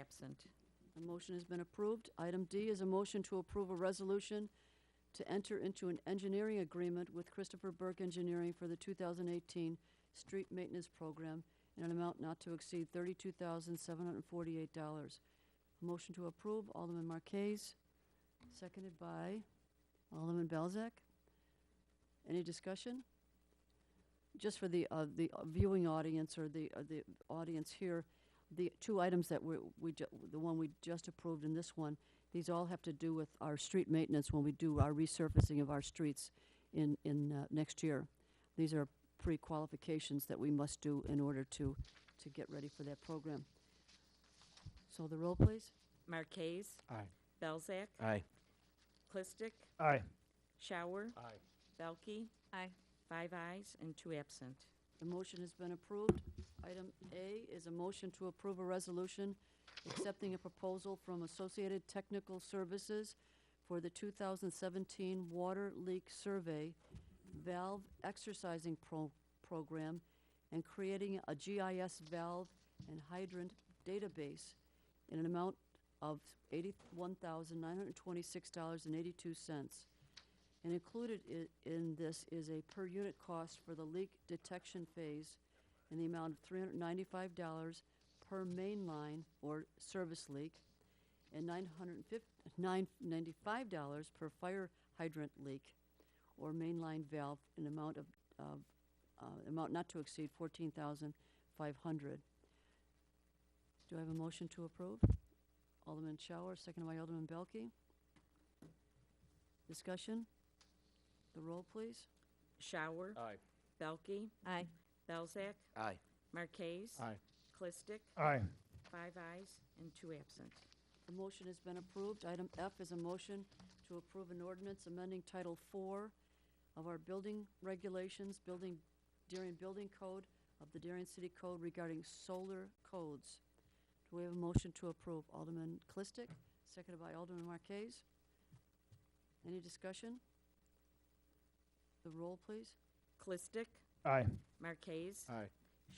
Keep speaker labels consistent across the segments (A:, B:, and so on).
A: absent.
B: The motion has been approved. Item D is a motion to approve a resolution to enter into an engineering agreement with Christopher Burke Engineering for the 2018 Street Maintenance Program in an amount not to exceed $32,748. Motion to approve, Alderman Marquez, seconded by Alderman Belzak. Any discussion? Just for the, uh, the uh, viewing audience or the, uh, the audience here, the two items that we, we, ju- the one we just approved and this one, these all have to do with our street maintenance when we do our resurfacing of our streets in, in, uh, next year. These are pre-qualifications that we must do in order to, to get ready for that program. So the roll, please.
A: Marquez.
C: Aye.
A: Belzak.
C: Aye.
A: Clistic.
C: Aye.
A: Shower.
C: Aye.
A: Belkey.
D: Aye.
A: Five ayes and two absent.
B: The motion has been approved. Item A is a motion to approve a resolution accepting a proposal from Associated Technical Services for the 2017 Water Leak Survey Valve Exercising Pro- Program and creating a GIS valve and hydrant database in an amount of $81,926.82. And included i- in this is a per-unit cost for the leak detection phase in the amount of three hundred ninety-five dollars per main line or service leak, and nine hundred nine ninety-five dollars per fire hydrant leak or main line valve in amount of, of, uh, amount not to exceed fourteen thousand five hundred. Do I have a motion to approve? Alderman Shower, seconded by Alderman Belke. Discussion? The roll, please.
A: Shower.
C: Aye.
A: Belkey.
D: Aye.
A: Belzak.
C: Aye.
A: Marquez.
C: Aye.
A: Clistic.
C: Aye.
A: Five ayes and two absent.
B: The motion has been approved. Item F is a motion to approve an ordinance amending Title IV of our building regulations, building, Darien Building Code of the Darien City Code regarding solar codes. Do we have a motion to approve? Alderman Clistic, seconded by Alderman Marquez. Any discussion? The roll, please.
A: Clistic.
C: Aye.
A: Marquez.
C: Aye.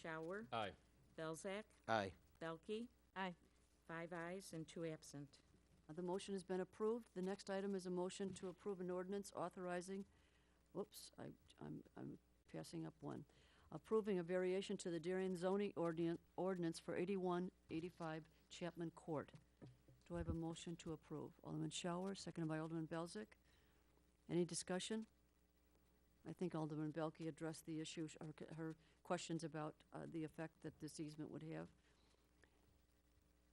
A: Shower.
C: Aye.
A: Belzak.
C: Aye.
A: Belkey.
D: Aye.
A: Five ayes and two absent.
B: Uh, The motion has been approved. The next item is a motion to approve an ordinance authorizing, whoops, I, I'm, I'm passing up one. Approving a variation to the Darien zoning ordinance, ordinance for eighty-one eighty-five Chapman Court. Do I have a motion to approve? Alderman Shower, seconded by Alderman Belzak. Any discussion? I think Alderman Belke addressed the issue, sh- her, c- her questions about, uh, the effect that this easement would have.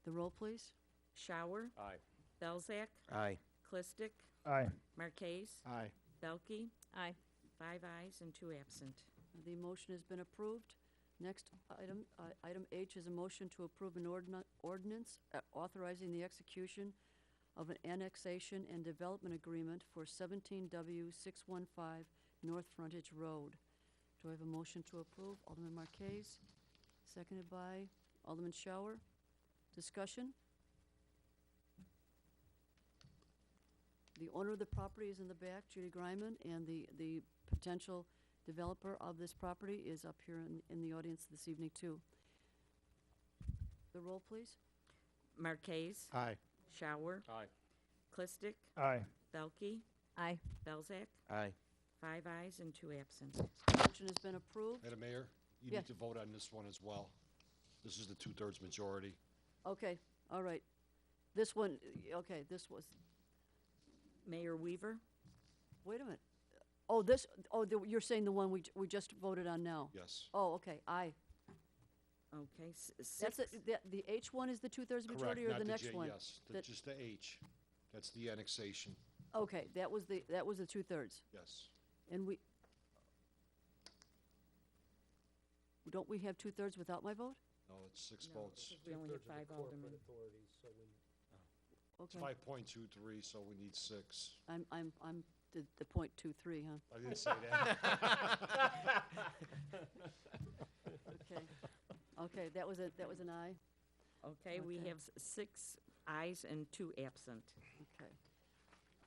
B: The roll, please.
A: Shower.
C: Aye.
A: Belzak.
C: Aye.
A: Clistic.
C: Aye.
A: Marquez.
C: Aye.
A: Belkey.
D: Aye.
A: Five ayes and two absent.
B: The motion has been approved. Next item, uh, item H is a motion to approve an ordna- ordinance uh, authorizing the execution of an annexation and development agreement for 17W615 North Frontage Road. Do I have a motion to approve? Alderman Marquez, seconded by Alderman Shower. Discussion? The owner of the property is in the back, Judy Griman, and the, the potential developer of this property is up here in, in the audience this evening, too. The roll, please.
A: Marquez.
C: Aye.
A: Shower.
C: Aye.
A: Clistic.
C: Aye.
A: Belkey.
D: Aye.
A: Belzak.
C: Aye.
A: Five ayes and two absent.
B: Motion has been approved.
E: Madam Mayor, you
B: Yeah.
E: need to vote on this one as well. This is the two-thirds majority.
B: Okay, all right. This one, y- okay, this was,
A: Mayor Weaver.
B: wait a minute. Oh, this, oh, the- you're saying the one we, j- we just voted on now?
E: Yes.
B: Oh, okay, aye.
A: Okay. s-
B: That's, it.
A: six-
B: the, the H one is the two-thirds majority or
E: Correct,
B: the
E: not
B: next
E: J,
B: one?
E: Yes, the-
B: The-
E: just the H. That's the annexation,
B: Okay, that was the, that was the two-thirds.
E: yes.
B: And we, don't we have two-thirds without my vote?
E: No, it's six
A: No,
E: votes.
A: We only have five aldermen.
E: It's
B: Okay,
E: five point two three, so we need six.
B: I'm, I'm, I'm the, the point two-three, huh?
E: I didn't say that.
B: Okay, okay, that was a, that was an aye,
A: Okay, we
B: Okay.
A: have s- six ayes and two absent.
B: okay.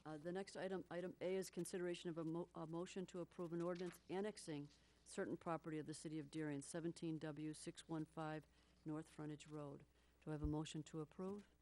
B: Uh, the next item, item A is consideration of a mo- a motion to approve an ordinance annexing certain property of the city of Darien, seventeen W six one five North Frontage Road. Do I have a motion to approve?